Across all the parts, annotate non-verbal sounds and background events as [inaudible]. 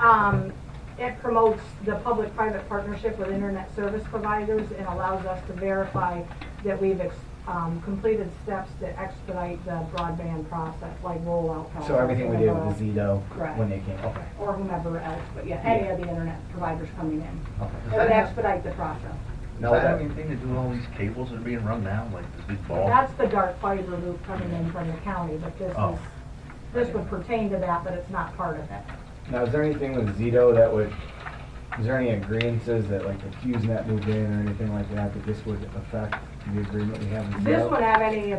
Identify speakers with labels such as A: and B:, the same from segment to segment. A: Act Um, promotes the public-private partnership with internet service providers and allows us to verify that we've ex- um, completed steps that expedite the broadband process, like rollout. process,
B: So everything we did with
A: whatever,
B: Zito
A: Correct.
B: when they came, okay,
A: Or whomever else, but yeah, any of the internet providers coming in. It
B: okay.
A: would expedite the process.
B: Now
C: Does that have
B: that-
C: anything to do with all these cables that are being run now, like this big ball?
A: That's the dark fiber loop coming in from the county, but this
C: Oh.
A: is, this would pertain to that, but it's not part of it.
B: Now, is there anything with Zito that would, is there any agreeances that like if FuseNet moved in or anything like that, that this would affect the agreement we have with Zito?
A: This won't have any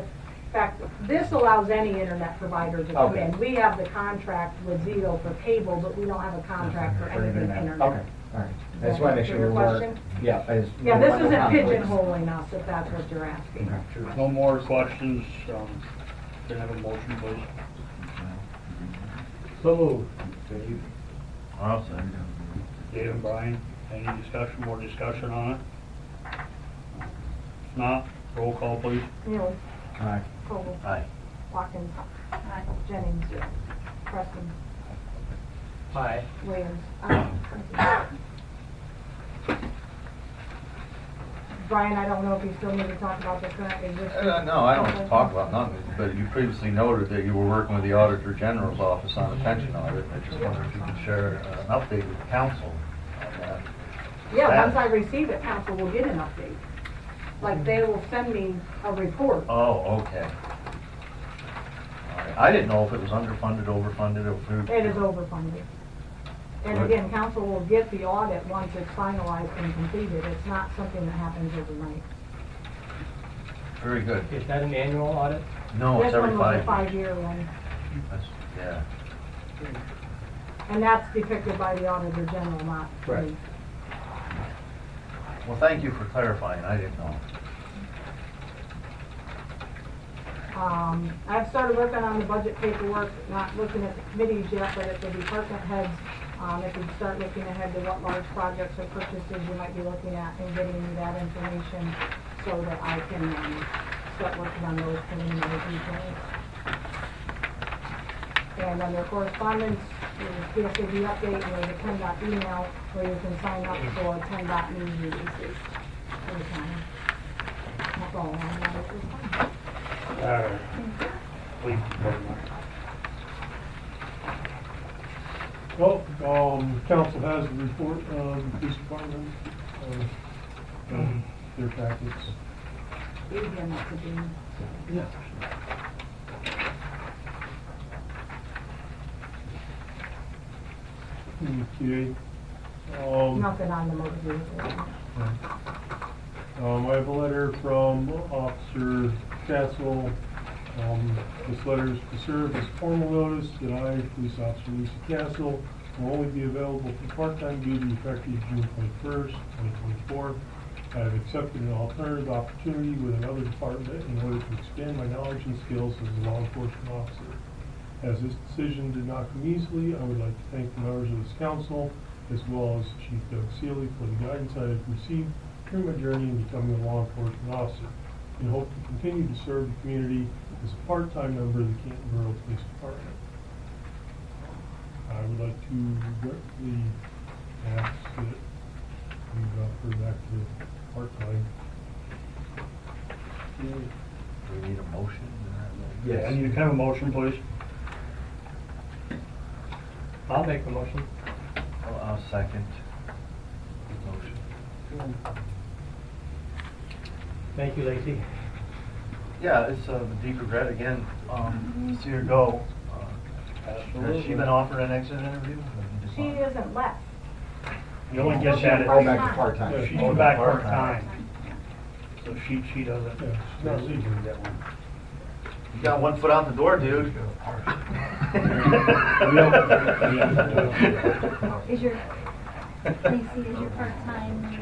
A: effect, this allows any internet provider to come
B: Okay.
A: in. We have the contract with Zito for cable, but we don't have a contract for
B: For
A: anything internet.
B: Okay, all right. I just want to make sure
A: Your
B: we were,
A: question?
B: yeah, I just.
A: Yeah, this isn't
B: conflicts.
A: pigeonholing us, if that's what you're asking.
B: Okay.
D: There's no more questions, um, can I have a motion, please?
E: So moved.
C: I'll say.
D: Dave and Brian, any discussion, more discussion on it? If not, roll call, please.
A: Neil,
B: All right.
A: Cole,
C: Aye.
A: Watkins, Jennings, Preston,
E: Aye.
A: Williams. Aye. Brian, I don't know if you still need to talk about the current existing.
C: Uh, no, I don't want to talk about nothing, but you previously noted that you were working with the Auditor General's Office on a pension audit. I just wondered if you could share uh, an update with the council on that.
A: Yeah, once I receive it, council will get an update. Like, they will send me a report.
C: Oh, okay. All right. I didn't know if it was underfunded, overfunded, or if we-
A: It is overfunded. And again, council will get the audit once it's finalized and completed. It's not something that happens overnight.
C: Very good.
E: Is that an annual audit?
C: No, it's every
A: This one was a
C: five years.
A: five-year one,
C: That's- Yeah.
A: and that's depicted by the auditor general, not me.
B: Right.
C: Well, thank you for clarifying. I didn't know.
A: Um, I've started working on the budget paperwork, not looking at the committees yet, but at the department heads, um, if you start looking ahead to what large projects or purchases you might be looking at and getting me that information so that I can, um, start working on those preliminary details. And under correspondence, there's a PSAB update, and there's a PennDOT email where you can sign up for E PennDOT news releases for the county. That's all I have at this time.
D: Alright. Please, vote now.
F: Well, um, council has the report of the police department, uh, um, their tactics.
A: You'd be a nice addition.
F: Yeah. Okay, um,
A: Nothing on the motor vehicle.
F: Uh, um, I have a letter from Officer Castle. Um, this letter is to serve as formal notice that I, police officer Lisa Castle, will only be available for part-time duty effective June twenty-first, twenty twenty-four. I have accepted an alternative opportunity with another department in order to expand my knowledge and skills as a law enforcement officer. As this decision did not come easily, I would like to thank the members of this council, as well as Chief Doug Seeley for the guidance I have received through my journey in becoming a law enforcement officer, and hope to continue to serve the community as a part-time member of the Canton Borough Police Department. I would like to directly ask that you refer back to part-time.
C: We need a motion. and that.
B: Yes.
D: And you can have a motion, please.
E: I'll make the motion.
C: I'll I'll second the motion.
E: Thank you, Lacy.
C: Yeah, it's uh, a deep regret again, um, to see her go. Uh, Has she been offered an exit interview?
A: She isn't left.
D: You only get that
B: Go
D: if
B: back to
F: Yeah,
B: part-time.
D: she's
C: Oh,
D: back
C: part-time.
D: part-time. So she, she doesn't,
F: Yeah, she's not leaving.
D: that one.
C: You got one foot out the
E: [laughs]
C: door, dude.
G: Is your, Lacey, is your part-time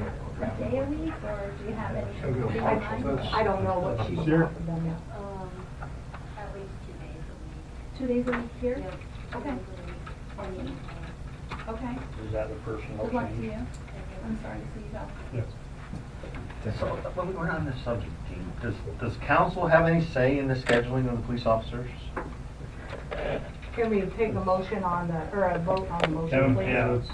G: a day a week, or do you have any? in mind?
A: I don't know what she's
F: Sure.
A: talking about yet.
H: Um, at least two days a week.
G: Two days a week here?
H: Yep, two
G: Okay.
H: days a week, and then, uh,
G: Okay.
D: Is that the person?
G: Good luck to you.
H: and then-
G: I'm sorry to see you go.
F: Yes.
C: So, when we we're on this subject, Dean, does, does council have any say in the scheduling of the police officers?
A: Can we take a motion on the, or a vote on the motion,
D: Kevin,
A: please?
D: yeah.